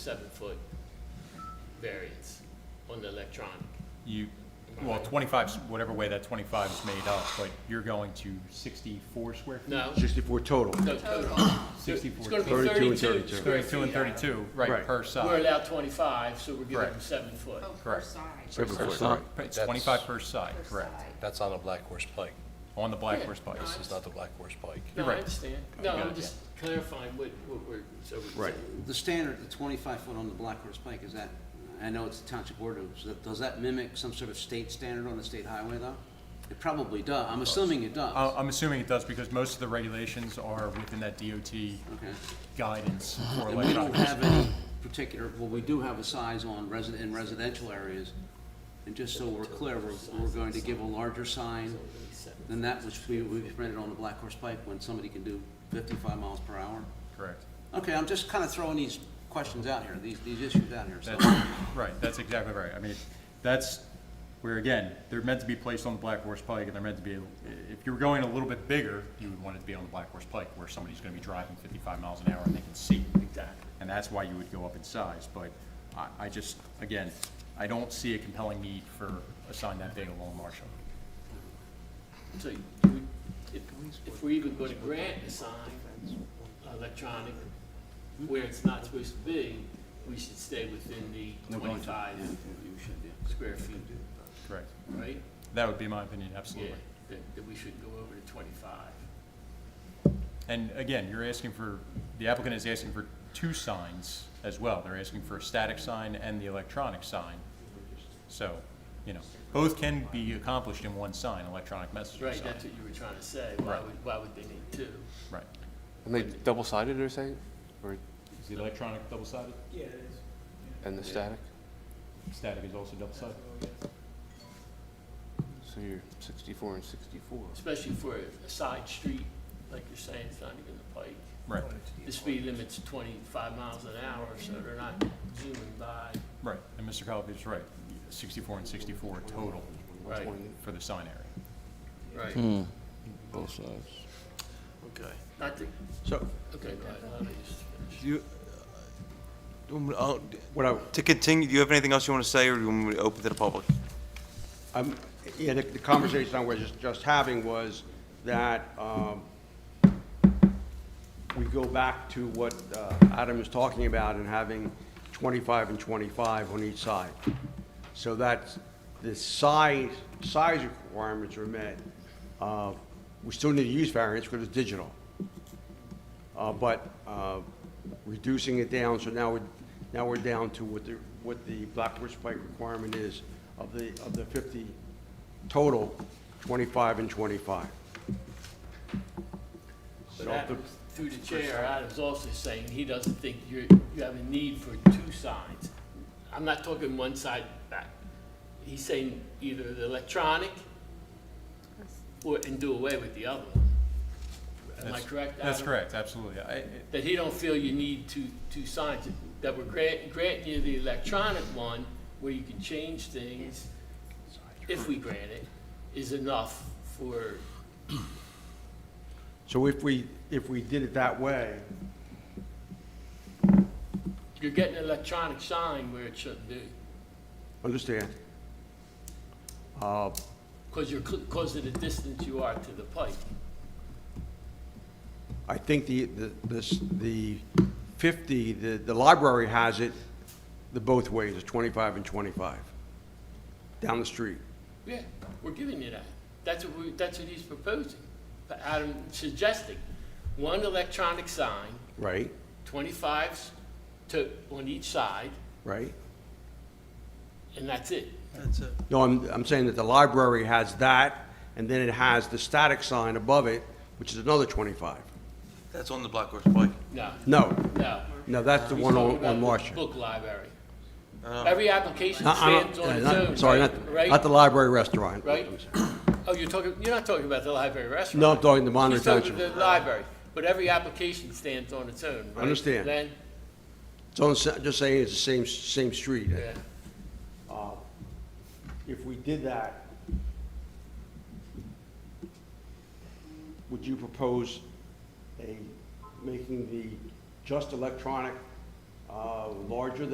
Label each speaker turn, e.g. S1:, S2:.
S1: seven-foot variance on the electronic.
S2: You, well, twenty-five, 's whatever way that twenty-five is made up, but you're going to sixty-four square feet?
S1: No,
S3: Sixty-four total.
S1: no, total. So It's
S2: 64.
S1: gonna be
S3: 32
S1: thirty-two.
S3: and 32.
S1: square
S2: Thirty-two and
S1: feet.
S2: thirty-two,
S3: Right.
S2: right, per
S1: We're
S2: side.
S1: allowed twenty-five, so we're giving them
S2: Correct.
S1: seven-foot.
S4: Oh, per
S2: Correct.
S4: side.
S3: Seven
S5: That's
S3: foot,
S5: not-
S3: right.
S2: It's
S5: that's-
S2: twenty-five per side,
S4: Per
S2: correct,
S4: side.
S5: That's on a Black Horse Pike.
S2: on the Black
S1: Yeah.
S2: Horse Pike.
S5: This is not the Black Horse Pike.
S1: No, I
S2: right.
S1: understand. No,
S2: got
S1: I'm
S2: it,
S1: just clarifying what, what we're, so. we-
S3: Right.
S6: The standard, the twenty-five foot on the Black Horse Pike, is that, I know it's the township ordinance, that- does that mimic some sort of state standard on the state highway though? It probably does, I'm assuming it
S2: Uh,
S6: does.
S2: I'm assuming it does, because most of the regulations are within that DOT
S6: Okay.
S2: Oh, guidance for
S6: And we don't
S2: electronic.
S6: have any particular, well, we do have a size on resident, in residential areas. And just so we're clear, we're, we're going to give a larger sign than that which we, we printed on the Black Horse Pike when somebody can do fifty-five miles per hour.
S2: Correct.
S6: Okay, I'm just kinda throwing these questions out here, these, these issues out here, so.
S2: That's, right, that's exactly right. I mean, that's where, again, they're meant to be placed on the Black Horse Pike, and they're meant to be, if you were going a little bit bigger, you would want it to be on the Black Horse Pike, where somebody's gonna be driving fifty-five miles an hour and they can see. Exactly. And that's why you would go up in size, but I, I just, again, I don't see a compelling need for a sign that big along Marshall.
S1: So do we- if, if we're even gonna grant a sign, electronic, where it's not supposed to be, we should stay within the
S6: We're going to-
S1: twenty-five
S6: yeah, you should, yeah.
S1: square feet,
S2: Correct.
S1: right?
S2: That would be my opinion,
S1: Yeah,
S2: absolutely.
S1: that, that we shouldn't go over to twenty-five.
S2: And again, you're asking for, the applicant is asking for two signs as well. They're asking for a static sign and the electronic sign. So, you know, both can be accomplished in one sign, electronic messenger
S1: Right,
S2: sign.
S1: that's what you were trying to say. Why
S2: Right.
S1: would, why would they need two?
S2: Right.
S5: And they double-sided, they're saying?
S2: Is the electronic double-sided?
S7: Yeah, it is.
S5: And the static?
S2: Static is also double-sided?
S5: So you're sixty-four and sixty-four.
S1: Especially for a side street, like you're saying, it's not even the pike.
S2: Right,
S1: The speed limit's twenty-five miles an hour, so they're not zooming by.
S2: right. And Mr. Colapi's is right, sixty-four and sixty-four total
S1: Right,
S2: for the sign area.
S1: right.
S5: Hmm. Both sides.
S1: Okay. Not to,
S8: So,
S1: okay, go ahead, let me just finish.
S8: do you, um, uh, what I, to continue, do you have anything else you want to say, or do you want me to open to the public?
S3: Um, yeah, the, the conversation I was just, just having was that, um, we go back to what, uh, Adam is talking about and having twenty-five and twenty-five on each side. So that's, the size, size requirements are met. Uh, we still need to use variance because it's digital. Uh, but, uh, reducing it down, so now we're, now we're down to what the, what the Black Horse Pike requirement is of the, of the fifty total, twenty-five and twenty-five.
S1: But
S3: So if the-
S1: Adams, through the chair, Adam's also saying he doesn't think you're, you have a need for two signs. I'm not talking one side back. He's saying either the electronic or, and do away with the other one. Am I
S2: That's-
S1: correct, Adam?
S2: That's correct, absolutely. I, it-
S1: That he don't feel you need two, two signs, that we're grant, granting you the electronic one where you can change things, if we grant it, is enough for,
S3: So if we, if we did it that way,
S1: you're getting an electronic sign where it shouldn't be.
S3: understand? Uh,
S1: Because you're, because of the distance you are to the pipe.
S3: I think the, the, this, the fifty, the, the library has it, the both ways, it's twenty-five and twenty-five, down the street.
S1: Yeah, we're giving you that. That's what we, that's what he's proposing. But Adam suggesting, one electronic sign,
S3: Right,
S1: twenty-fives to, on each side,
S3: right?
S1: and that's it.
S7: That's it.
S3: No, I'm, I'm saying that the library has that, and then it has the static sign above it, which is another 25.
S8: That's on the Black Horse Pike.
S1: No,
S3: No,
S1: no.
S3: no, that's the
S1: He's
S3: one
S1: talking
S3: on,
S1: about
S3: on
S1: the
S3: Marshall.
S1: Book library.
S8: Uh,
S1: Every application
S3: Not- I'm not-
S1: stands on
S3: yeah,
S1: its
S3: not-
S1: own,
S3: Sorry,
S1: right?
S3: not,
S1: Right?
S3: not the library restaurant.
S1: Right? Oh, you're talking, you're not talking about the library restaurant.
S3: No, I'm talking the Monterey
S1: He's talking
S3: Township.
S1: about the library, but every application stands on its own, right?
S3: Understand.
S1: Len?
S3: It's on, the sa- just saying it's the same, same street.
S1: yeah.
S3: If we did that, would you propose a, making the just electronic uh, uh, larger